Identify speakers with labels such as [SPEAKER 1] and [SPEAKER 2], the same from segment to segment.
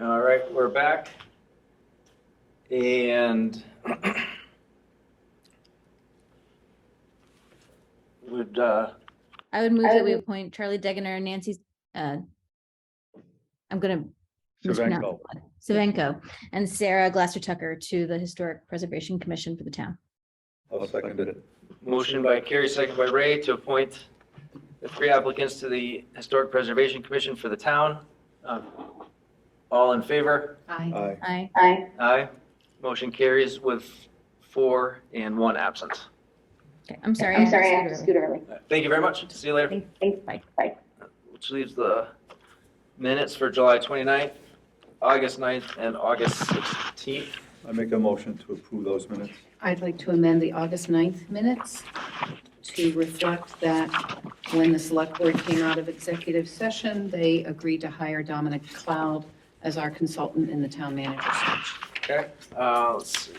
[SPEAKER 1] All right, we're back. And would, uh,
[SPEAKER 2] I would move that
[SPEAKER 3] Um,
[SPEAKER 2] we appoint Charlie Degener and Nancy, uh, I'm gonna. mispronounce
[SPEAKER 4] Cervenko.
[SPEAKER 2] it. Cervenko and Sarah Glasser Tucker to the Historic Preservation Commission for the town.
[SPEAKER 4] I'll second it.
[SPEAKER 1] motion by Carrie, second by Ray, to appoint the three applicants to the Historic Preservation Commission for the town. Uh, All in favor?
[SPEAKER 3] Aye.
[SPEAKER 4] Aye.
[SPEAKER 2] Aye.
[SPEAKER 3] Aye.
[SPEAKER 1] Aye. Motion carries with four and one absent.
[SPEAKER 2] Okay, I'm sorry.
[SPEAKER 3] I'm
[SPEAKER 2] had to
[SPEAKER 3] sorry, I
[SPEAKER 2] scoot
[SPEAKER 3] have to
[SPEAKER 2] over.
[SPEAKER 3] scoot early.
[SPEAKER 1] Thank you very much. See you later.
[SPEAKER 3] Thanks, bye. Bye.
[SPEAKER 1] Which leaves the minutes for July 29th, August 9th, and August 16th.
[SPEAKER 4] I make a motion to approve those minutes.
[SPEAKER 5] I'd like to amend the August 9th minutes to reflect that when the select board came out of executive session, they agreed to hire Dominic Cloud as our consultant in the town manager search.
[SPEAKER 1] Okay, uh, let's see.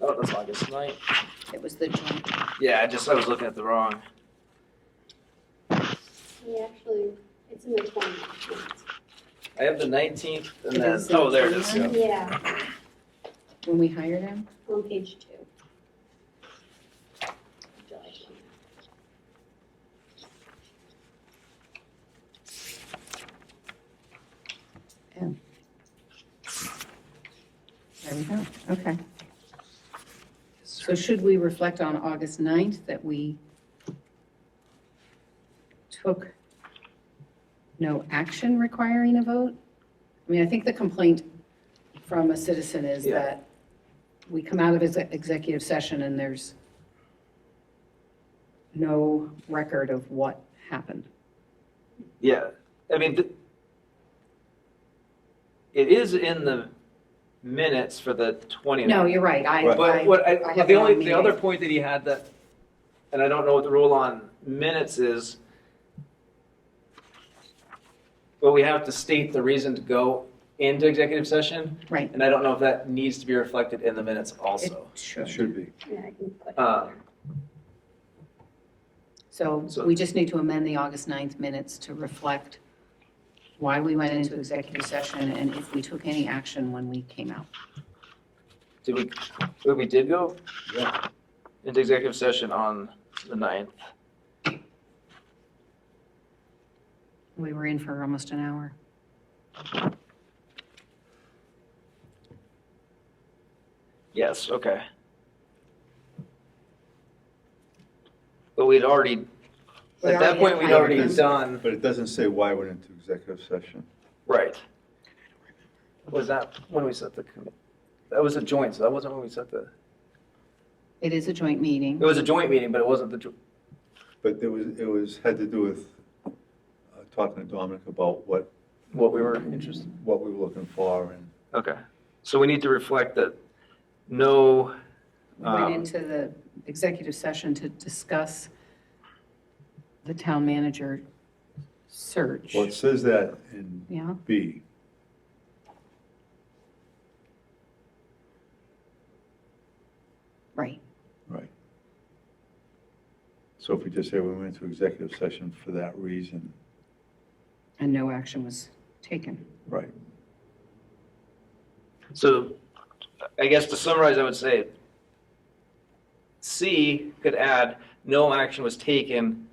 [SPEAKER 1] Oh, that's August 9th.
[SPEAKER 5] It was the joint,
[SPEAKER 1] Yeah, I just, I was looking at the wrong.
[SPEAKER 6] We actually, it's in the twenties.
[SPEAKER 1] I have the 19th and
[SPEAKER 5] It
[SPEAKER 1] then,
[SPEAKER 5] is
[SPEAKER 1] oh, there it is.
[SPEAKER 4] Yeah.
[SPEAKER 6] Yeah,
[SPEAKER 5] when we hired him,
[SPEAKER 6] on page two. July 20.
[SPEAKER 5] there we go, okay. So should we reflect on August 9th that we took no action requiring a vote? I mean, I think the complaint from a citizen is
[SPEAKER 1] Yeah.
[SPEAKER 5] that we come out of exe- executive session and there's no record of what happened.
[SPEAKER 1] Yeah, I mean, th- it is in the minutes for the 29th.
[SPEAKER 5] No, you're right, I,
[SPEAKER 1] But
[SPEAKER 5] I,
[SPEAKER 1] what
[SPEAKER 5] I
[SPEAKER 1] I,
[SPEAKER 5] have
[SPEAKER 1] the
[SPEAKER 5] it on
[SPEAKER 1] only, the
[SPEAKER 5] meeting.
[SPEAKER 1] other point that he had that, and I don't know what the rule on minutes is, but we have to state the reason to go into executive session,
[SPEAKER 5] right,
[SPEAKER 1] and I don't know if that needs to be reflected in the minutes
[SPEAKER 5] it
[SPEAKER 1] also.
[SPEAKER 4] It
[SPEAKER 5] should.
[SPEAKER 4] should be.
[SPEAKER 6] Yeah, I can put it
[SPEAKER 1] Uh,
[SPEAKER 6] there.
[SPEAKER 5] So
[SPEAKER 1] So-
[SPEAKER 5] we just need to amend the August 9th minutes to reflect why we went into executive session and if we took any action when we came out.
[SPEAKER 1] Did we, wait, we did go
[SPEAKER 4] Yeah.
[SPEAKER 1] into executive session on the 9th.
[SPEAKER 5] We were in for almost an hour.
[SPEAKER 1] Yes, okay. But we'd already,
[SPEAKER 5] We
[SPEAKER 1] at that
[SPEAKER 5] already
[SPEAKER 1] point, we'd
[SPEAKER 5] hired
[SPEAKER 1] already
[SPEAKER 5] him.
[SPEAKER 1] done,
[SPEAKER 4] But it doesn't say why went into executive session.
[SPEAKER 1] right. Was that when we set the, com- that was a joint, so that wasn't when we set the,
[SPEAKER 5] It is a joint
[SPEAKER 1] it
[SPEAKER 5] meeting.
[SPEAKER 1] was a joint meeting, but it wasn't the, jo-
[SPEAKER 4] But there was, it was, had to do with uh, talking to Dominic about what,
[SPEAKER 1] what we were interested.
[SPEAKER 4] what we were looking for and
[SPEAKER 1] Okay, so we need to reflect that no,
[SPEAKER 5] We went
[SPEAKER 1] um,
[SPEAKER 5] into the executive session to discuss the town manager search.
[SPEAKER 4] Well, it says that in
[SPEAKER 5] Yeah,
[SPEAKER 4] B.
[SPEAKER 5] right.
[SPEAKER 4] Right. So if we just say we went into executive session for that reason,
[SPEAKER 5] And no action was taken.
[SPEAKER 4] right,
[SPEAKER 1] so I guess to summarize, I would say C could add, no action was taken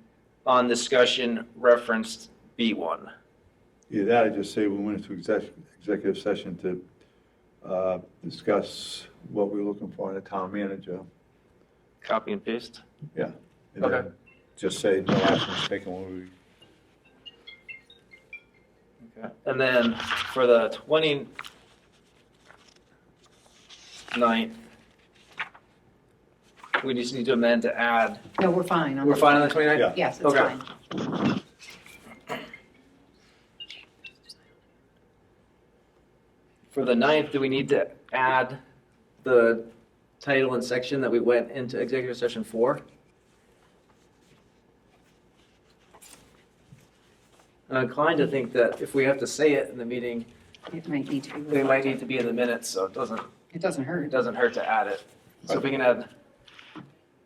[SPEAKER 1] on discussion referenced B1.
[SPEAKER 4] either that or just say we went into exec, executive session to uh, discuss what we were looking for in a town manager.
[SPEAKER 1] Copy and paste.
[SPEAKER 4] and then
[SPEAKER 1] Okay.
[SPEAKER 4] Just say no action was taken when we
[SPEAKER 1] And then for the 29th, we just need to amend to add,
[SPEAKER 5] No, we're fine. on
[SPEAKER 1] we're
[SPEAKER 5] the-
[SPEAKER 1] fine on the 29th?
[SPEAKER 4] Yeah.
[SPEAKER 5] Yes, it's
[SPEAKER 1] Okay.
[SPEAKER 5] fine.
[SPEAKER 1] For the 9th, do we need to add the title and section that we went into executive session for? I'm inclined to think that if we have to say it in the meeting,
[SPEAKER 5] It might need to be.
[SPEAKER 1] they might need to be in the minutes, so it doesn't,
[SPEAKER 5] It doesn't
[SPEAKER 1] it
[SPEAKER 5] hurt.
[SPEAKER 1] doesn't hurt to add it. So if we can add